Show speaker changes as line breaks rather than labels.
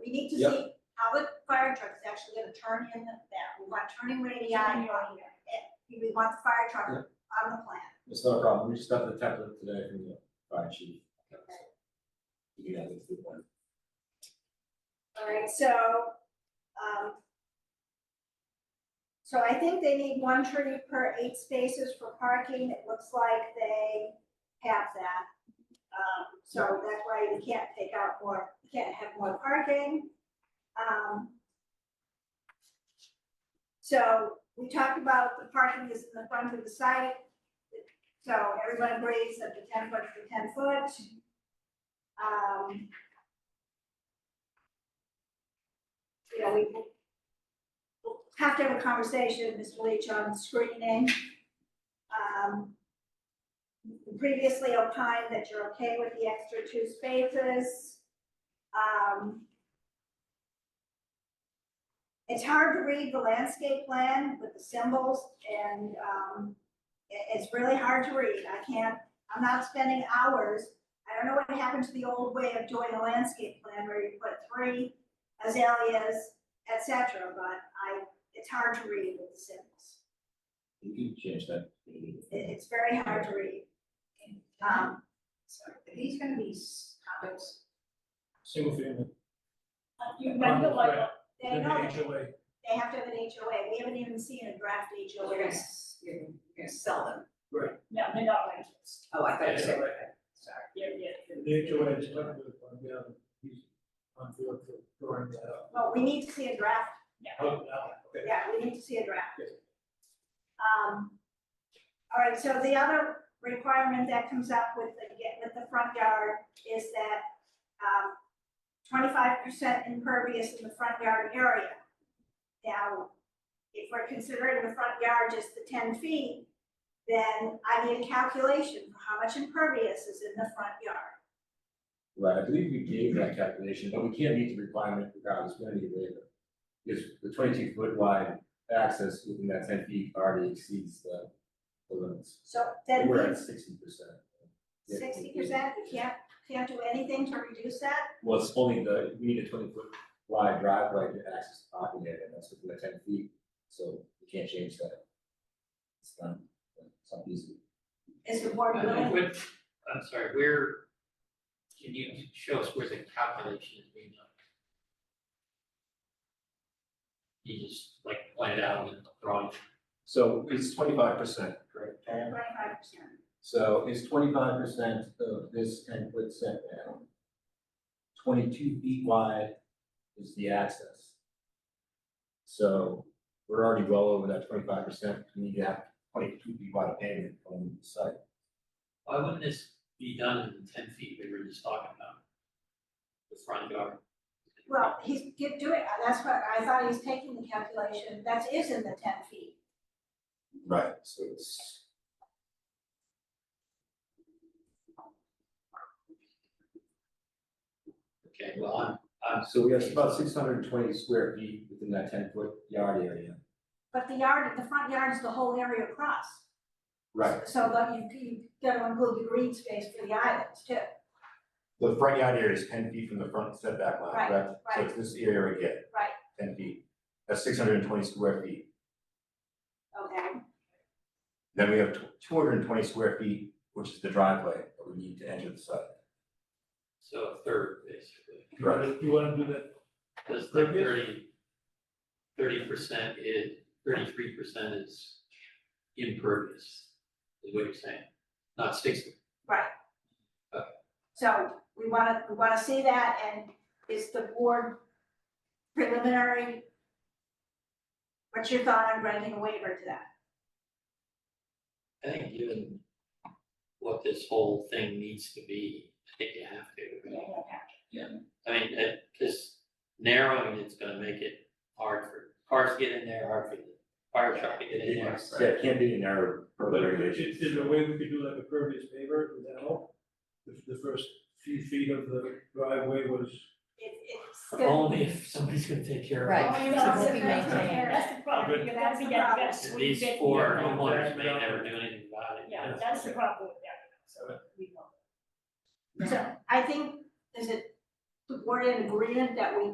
we need to
Yep.
see how the fire truck is actually gonna turn in that, we want turning radii on here. Eh, We want the fire truck
Yep.
on the plan.
It's not a problem, we just got the template today from the fire chief.
Okay.
You guys have to do one.
Alright, so, um. So I think they need one tree per eight spaces for parking, it looks like they have that. Um, so that's why we can't take out more, we can't have more parking, um. So we talked about the parking is in the front of the site, so everyone agrees that the ten foot for ten foot. Um. you know, we we'll have to have a conversation, Mr. Leach, on screening. Um, you previously opined that you're okay with the extra two spaces. Um, it's hard to read the landscape plan with the symbols and, um, i- it's really hard to read. I can't, I'm not spending hours. I don't know what happened to the old way of doing a landscape plan where you put three azaleas, et cetera, but I, it's hard to read with the symbols.
You can change that.
It, it's very hard to read. Um,
Sorry, are these gonna be s- topics?
Single family.
you
On the
might like,
flat,
they
then the
know,
HOA.
they have to have an HOA, we haven't even seen a draft
You're
HOA.
gonna, s- you're gonna- you're gonna sell them.
No, they're not rentals.
Oh, I thought you said,
Yeah.
sorry.
Yeah, yeah.
The HOA is not good, but yeah, he's on field for drawing that up.
Well, we need to see a draft,
Oh, now, okay.
yeah, we need to see a draft.
Yes.
Um, all right, so the other requirement that comes up with the, get- with the front yard is that, um, twenty-five percent impervious in the front yard area. Now, if we're considering the front yard just the ten feet, then I need a calculation for how much impervious is in the front yard.
Right, I believe we gave that calculation, but we can't meet the requirement regardless, we're gonna need waiver. Because the twenty-two foot wide access within that ten feet already exceeds the, the limits.
So then
We're at
means
sixty percent.
sixty percent, you can't, can't do anything to reduce that?
Well, it's only the, we need a twenty foot wide driveway to access the parking area, and that's within the ten feet, so we can't change that. It's not, it's not easy.
Is the board
Uh,
willing?
what- I'm sorry, where, can you show us where the calculation is being done? You just like pointed out in the drawing.
So it's twenty-five percent, correct?
Twenty-five percent.
So it's twenty-five percent of this ten foot setback. Twenty-two feet wide is the access. So we're already well over that twenty-five percent, we need to have twenty-two feet wide of pavement going into the site.
Why wouldn't this be done in the ten feet we were just talking about? The front yard?
Well, he's get- doing, that's what, I thought he's taking the calculation, that is in the ten feet.
Right. So it's.
Okay, well, I'm, I'm.
So we have about six hundred and twenty square feet within that ten foot yard area.
But the yard, the front yard is the whole area across. So that you, you gotta include the green space for the islands too.
The front yard area is ten feet from the front setback line,
Right,
correct? So
right.
it's this area right here.
Right.
Ten feet, that's six hundred and twenty square feet.
Okay,
Then we have two hundred and twenty square feet, which is the driveway that we need to enter the site.
So a third, basically.
You wanna- You wanna do that?
Does the thirty, thirty percent is, thirty-three percent is impervious, is what you're saying? Not sixty?
so we wanna, we wanna see that and is the board preliminary? What's your thought on granting a waiver to that?
I think given what this whole thing needs to be, I think you have to. I mean, it, just narrowing it's gonna make it hard for cars to get in there, hard for the fire truck to get in there.
Yeah, it can't be an error per the
Is is there a way we could do like a previous paper, would that help? If the first few feet of the driveway was,
It, it's
But
good.
Only if somebody's gonna take care of it.
Right.
Oh,
So
no,
it's
it's
a nice
maintained.
area.
That's the problem, you have to get a better
And
sweep
These
it.
four
Yeah.
homeowners may never do anything about it.
Yeah, that's the problem with that, so we know.
So I think, is it, the board in agreement that we